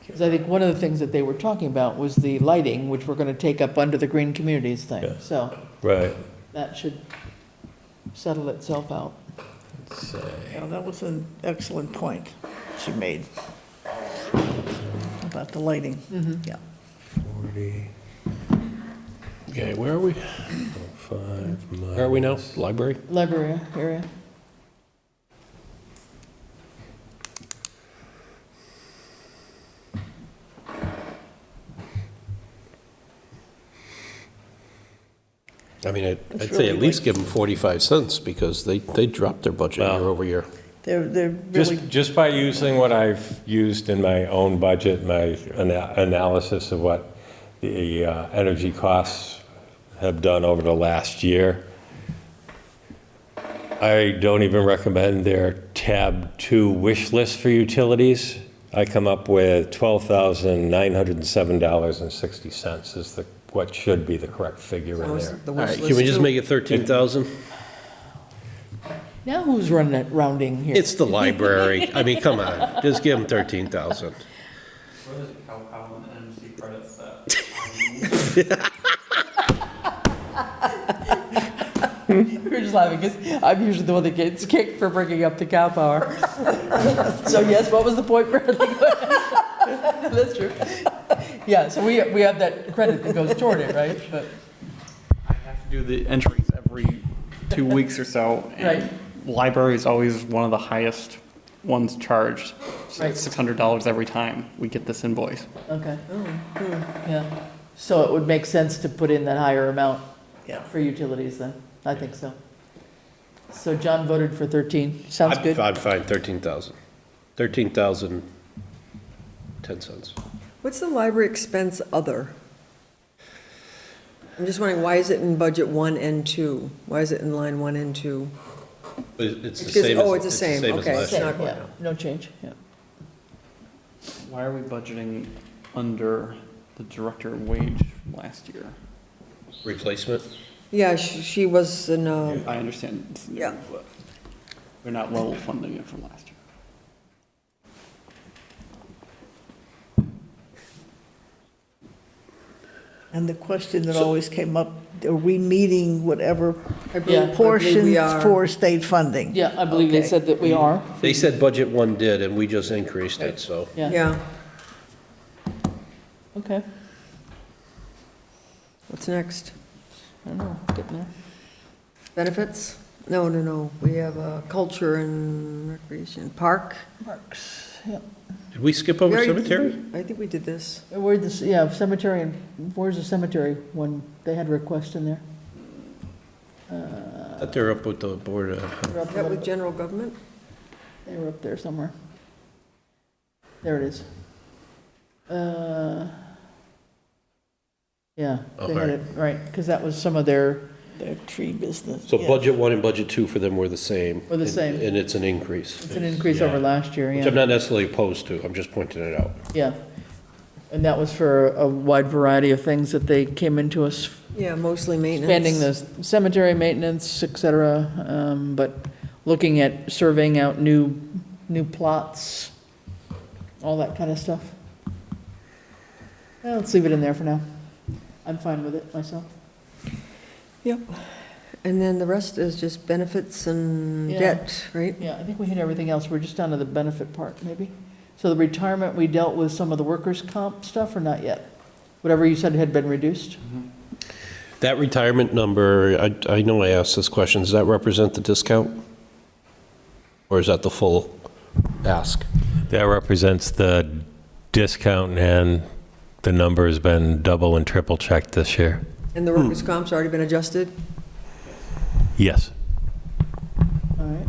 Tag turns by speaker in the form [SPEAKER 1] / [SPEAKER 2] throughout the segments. [SPEAKER 1] Because I think one of the things that they were talking about was the lighting, which we're going to take up under the green communities
[SPEAKER 2] Yeah.
[SPEAKER 1] thing. So
[SPEAKER 2] Right,
[SPEAKER 1] that should settle itself out.
[SPEAKER 2] let's see.
[SPEAKER 3] Yeah, that was an excellent point she made about the lighting. Yeah.
[SPEAKER 2] 40. Okay, where are we? Five miles.
[SPEAKER 4] Where are we now? Library?
[SPEAKER 1] Library area.
[SPEAKER 4] I mean, I'd-
[SPEAKER 3] It's
[SPEAKER 4] I'd say at
[SPEAKER 3] really
[SPEAKER 4] least give them 45 cents because they, they dropped their budget
[SPEAKER 2] Wow.
[SPEAKER 4] year over year.
[SPEAKER 3] They're, they're really,
[SPEAKER 2] Just, just by using what I've used in my own budget, my ana- analysis of what the uh, energy costs have done over the last year, I don't even recommend their tab two wish list for utilities. I come up with $12,907.60 is the, what should be the correct figure in there.
[SPEAKER 4] All right, can we just make it 13,000?
[SPEAKER 1] Now who's running it rounding here?
[SPEAKER 4] It's the library. I mean, come on, just give them 13,000.
[SPEAKER 5] What is it, Cal Poly and MC credits that?
[SPEAKER 1] We're just laughing because I'm usually the one that gets kicked for bringing up the cow power. So yes, what was the point, Bradley? That's true. Yeah, so we, we have that credit that goes toward it, right? But,
[SPEAKER 5] I have to do the entries every two weeks or so. and
[SPEAKER 1] Right.
[SPEAKER 5] Library is always one of the highest ones charged. So
[SPEAKER 1] Right.
[SPEAKER 5] it's six hundred dollars every time we get this invoice.
[SPEAKER 1] okay.
[SPEAKER 6] Oh, hmm.
[SPEAKER 1] Yeah. So it would make sense to put in that higher amount
[SPEAKER 3] yeah.
[SPEAKER 1] for utilities then. I think so. So John voted for 13. Sounds
[SPEAKER 4] I'd-
[SPEAKER 1] good.
[SPEAKER 4] I'd find 13,000. 13,000, 10 cents.
[SPEAKER 6] What's the library expense other? I'm just wondering, why is it in budget one and two? Why is it in line one and two?
[SPEAKER 4] It- It's the
[SPEAKER 6] Because-
[SPEAKER 4] same as.
[SPEAKER 6] oh, it's the same,
[SPEAKER 4] as
[SPEAKER 6] okay.
[SPEAKER 4] last year.
[SPEAKER 6] not going
[SPEAKER 1] Yeah, No change, yeah.
[SPEAKER 5] Why are we budgeting under the director wage from last year?
[SPEAKER 4] Replacement?
[SPEAKER 6] Yeah, she she was in, uh,
[SPEAKER 5] I understand. it's new,
[SPEAKER 6] Yeah.
[SPEAKER 5] but We're not level funding it from last year.
[SPEAKER 3] And the question that always came up, are we meeting whatever
[SPEAKER 6] I believe- I believe
[SPEAKER 3] portion
[SPEAKER 6] we are.
[SPEAKER 3] for state funding?
[SPEAKER 1] Yeah, I believe they
[SPEAKER 6] Okay.
[SPEAKER 1] said that we are.
[SPEAKER 4] They said budget one did, and we just increased it, so.
[SPEAKER 1] Yeah,
[SPEAKER 6] yeah.
[SPEAKER 1] okay.
[SPEAKER 6] What's next?
[SPEAKER 1] I don't know, getting there.
[SPEAKER 6] Benefits? No, no, no, we have uh, culture and recreation, park.
[SPEAKER 1] Parks, yeah.
[SPEAKER 4] Did we skip over
[SPEAKER 6] We already-
[SPEAKER 4] cemetery?
[SPEAKER 6] I think we did this.
[SPEAKER 1] Where the, yeah, cemetery, and where's the cemetery one? They had a request in there.
[SPEAKER 4] I thought they were up with the board uh, of
[SPEAKER 1] They were up
[SPEAKER 6] Is
[SPEAKER 1] a
[SPEAKER 6] that
[SPEAKER 1] little
[SPEAKER 6] with
[SPEAKER 1] bit-
[SPEAKER 6] general government?
[SPEAKER 1] they were up there somewhere. There it is. Uh, Yeah, they had
[SPEAKER 4] Okay.
[SPEAKER 1] it, right, because that was some of their,
[SPEAKER 3] Their tree business.
[SPEAKER 4] So
[SPEAKER 3] yeah.
[SPEAKER 4] budget one and budget two for them were the same.
[SPEAKER 1] Were the
[SPEAKER 4] and-
[SPEAKER 1] same.
[SPEAKER 4] And it's an increase,
[SPEAKER 1] it's an increase over
[SPEAKER 2] Yeah.
[SPEAKER 1] last year,
[SPEAKER 4] which I'm
[SPEAKER 1] yeah.
[SPEAKER 4] not necessarily opposed to, I'm just pointing it out.
[SPEAKER 1] Yeah. And that was for a wide variety of things that they came into us
[SPEAKER 6] Yeah, mostly maintenance.
[SPEAKER 1] expanding the cemetery maintenance, et cetera, um, but looking at surveying out new, new plots, all that kind of stuff. Well, Let's leave it in there for now. I'm fine with it myself.
[SPEAKER 6] Yep. And then the rest is just benefits and
[SPEAKER 1] Yeah.
[SPEAKER 6] debt, right?
[SPEAKER 1] Yeah, I think we hit everything else, we're just down to the benefit part, maybe. So the retirement, we dealt with some of the workers' comp stuff or not yet? Whatever you said had been reduced?
[SPEAKER 4] That retirement number, I, I know I asked this question, does that represent the discount? Or is that the full ask?
[SPEAKER 2] That represents the discount and the number has been double and triple checked this year.
[SPEAKER 6] And the workers' comp's already been adjusted?
[SPEAKER 2] Yes.
[SPEAKER 1] All right.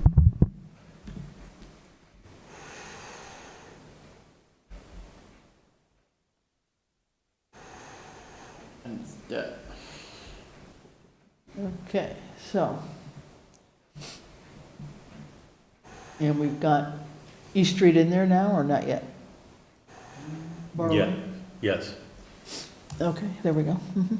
[SPEAKER 5] And it's debt.
[SPEAKER 1] Okay, so. And we've got East Street in there now, or not yet? Borrowing?
[SPEAKER 2] Yes.
[SPEAKER 1] Okay, there we go. Mhm.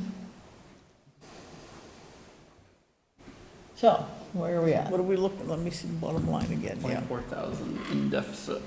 [SPEAKER 1] So, where are we at?
[SPEAKER 3] What are we looking, let me see the bottom line again, yeah.
[SPEAKER 5] Twenty-four thousand in deficit.